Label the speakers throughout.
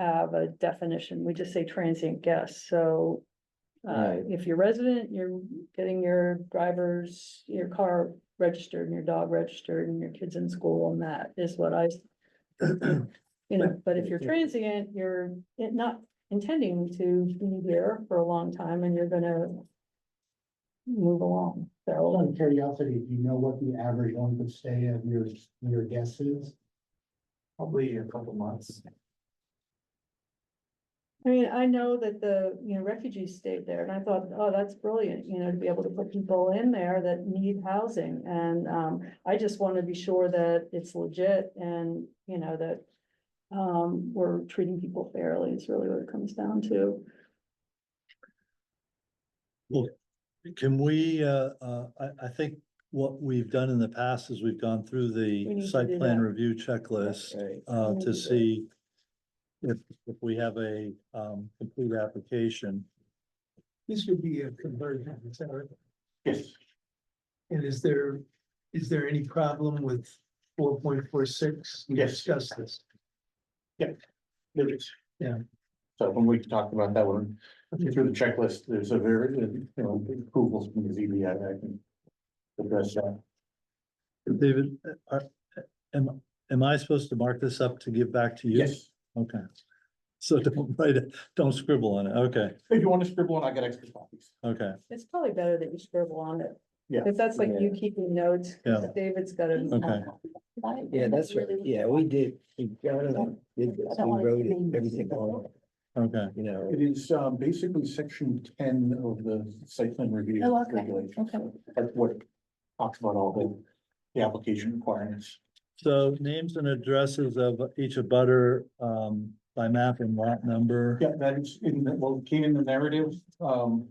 Speaker 1: have a definition. We just say transient guest, so. Uh,
Speaker 2: Right.
Speaker 1: if you're resident, you're getting your driver's, your car registered and your dog registered and your kids in school and that is what I. You know, but if you're transient, you're not intending to be there for a long time and you're gonna. Move along,
Speaker 3: Out
Speaker 1: so
Speaker 3: of curiosity, do you know what the average length of stay of your, your guests is?
Speaker 4: Probably a couple months.
Speaker 1: I mean, I know that the, you know, refugees stayed there and I thought, oh, that's brilliant, you know, to be able to put people in there that need housing. And um, I just want to be sure that it's legit and, you know, that. Um, we're treating people fairly is really what it comes down to.
Speaker 2: Can we, uh, uh, I, I think what we've done in the past is we've gone through
Speaker 1: We need
Speaker 2: the
Speaker 1: to
Speaker 2: site
Speaker 1: do
Speaker 2: plan
Speaker 1: that.
Speaker 2: review checklist,
Speaker 4: Right.
Speaker 2: uh,
Speaker 1: We need to do
Speaker 2: to
Speaker 1: that.
Speaker 2: see if, if we have a, um, complete application.
Speaker 5: This would be a conversion, is that right?
Speaker 4: Yes.
Speaker 5: And is there, is there any problem with four point four six? We
Speaker 4: Yes.
Speaker 5: discussed this.
Speaker 4: There is.
Speaker 5: Yeah.
Speaker 4: So when we talked about that one, through the checklist, there's a very, you know, approvals from the ZBA, that I can address that.
Speaker 2: David, uh, are- am, am I supposed to mark this up to give back to you?
Speaker 4: Yes,
Speaker 2: Okay. So don't write it, don't scribble on it. Okay,
Speaker 4: if you want to scribble on, I got extra copies.
Speaker 2: okay,
Speaker 1: It's probably better that you scribble on it.
Speaker 4: Yeah.
Speaker 1: If that's like you keeping notes,
Speaker 2: yeah,
Speaker 1: David's got
Speaker 6: uh,
Speaker 1: it.
Speaker 2: okay.
Speaker 7: Yeah, that's right. Yeah, we did. We got it. We did
Speaker 6: I
Speaker 7: this.
Speaker 6: don't
Speaker 7: We
Speaker 6: want it
Speaker 7: wrote
Speaker 6: to
Speaker 7: it,
Speaker 6: be-
Speaker 7: everything on, it,
Speaker 2: Okay,
Speaker 7: you know.
Speaker 4: It is um basically section ten of the site plan review.
Speaker 6: Oh, okay,
Speaker 4: regulations.
Speaker 6: okay.
Speaker 4: That's what talks about all the, the application requirements.
Speaker 2: so names and addresses of each abutter um, by map and lot number.
Speaker 4: Yeah, that is in, the- well, it came in the narrative, um.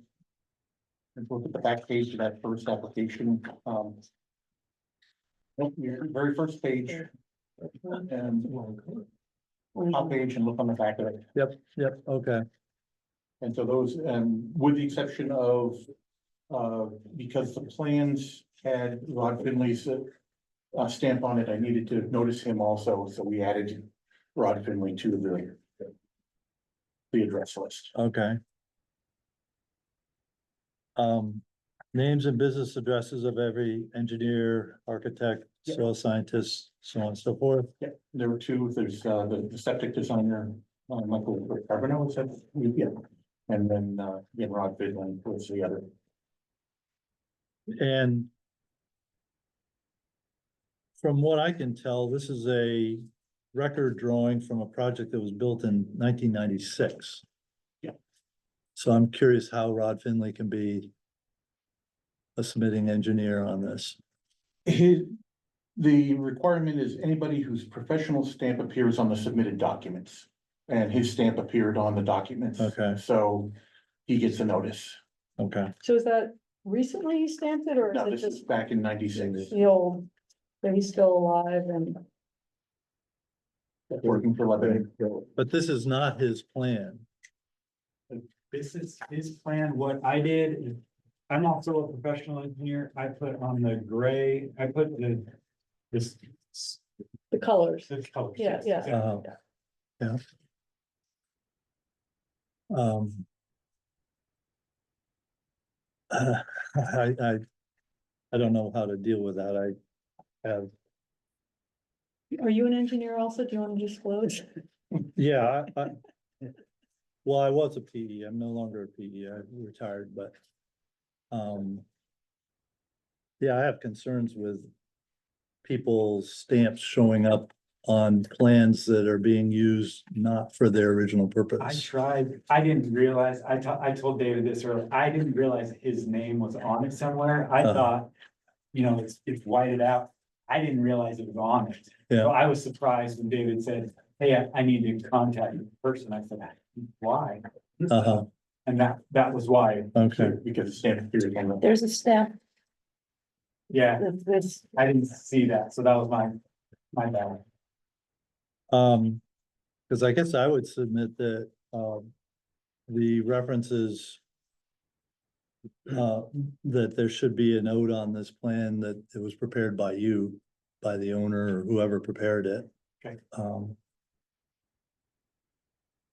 Speaker 4: If you look at the back page of that first application, um. look, your Very first page. And.
Speaker 1: Um,
Speaker 4: Top page and look on the back of it,
Speaker 2: Yep, okay,
Speaker 4: and so those, and with the exception of. Uh, because the plans had Rod Finley's. uh, Uh, stamp on it, I needed to notice him also, so we added Rod Finley to the. The address list.
Speaker 2: okay. Um, names and business addresses of every engineer, architect,
Speaker 4: Yep.
Speaker 2: soil scientist, so on and so forth.
Speaker 4: Yeah, there were two, there's uh the the septic designer, uh Michael Carbono, is that, yeah. And then uh, yeah, Rod Bidlin was the other.
Speaker 2: And from what I can tell, this is a record drawing from a project that was built in nineteen ninety-six.
Speaker 4: Yeah.
Speaker 2: So I'm curious how Rod Finley can be a submitting engineer on this.
Speaker 4: His, the requirement is anybody whose professional stamp appears on the submitted documents. And his stamp appeared on the documents.
Speaker 2: Okay.
Speaker 4: So he gets a notice.
Speaker 2: Okay,
Speaker 1: So is that recently he stamped it or
Speaker 4: Now,
Speaker 1: is
Speaker 4: this
Speaker 1: it
Speaker 4: is
Speaker 1: just
Speaker 4: back in ninety-six,
Speaker 1: the old? That he's still alive and,
Speaker 4: working for Lebanon.
Speaker 2: but this is not his plan.
Speaker 8: This is his plan, what I did, is- I'm also a professional engineer, I put on the gray, I put the. This,
Speaker 1: the colors.
Speaker 8: this color.
Speaker 1: Yeah, yeah.
Speaker 2: Uh, Yeah. Um. uh, I, I, I don't know how to deal with that. I have
Speaker 1: Are you an engineer also? Do you want to disclose?
Speaker 2: Yeah, I, I. Well, I was a PE, I'm no longer a PE, I retired, but. Um. Yeah, I have concerns with. People's stamps showing up on plans that are being used not for their original
Speaker 8: I
Speaker 2: purpose.
Speaker 8: tried, I didn't realize, I to- I told David this earlier, I didn't realize his name was on it somewhere, I
Speaker 2: Uh-huh.
Speaker 8: thought. You know, it's, it's whited out, I didn't realize it was on it.
Speaker 2: Yeah.
Speaker 8: So I was surprised when David said, hey, I- I need to contact the person, I said, why?
Speaker 2: Uh-huh,
Speaker 8: And that, that was why,
Speaker 2: okay,
Speaker 4: Because the stamp appeared on the.
Speaker 6: There's a stamp
Speaker 8: yeah.
Speaker 6: of this,
Speaker 8: I didn't see that, so that was my, my bad.
Speaker 2: um, cause I guess I would submit that, um. The references. Uh, that there should be a note on this plan that it was prepared by you, by the owner or whoever prepared it.
Speaker 8: Okay.
Speaker 2: Um,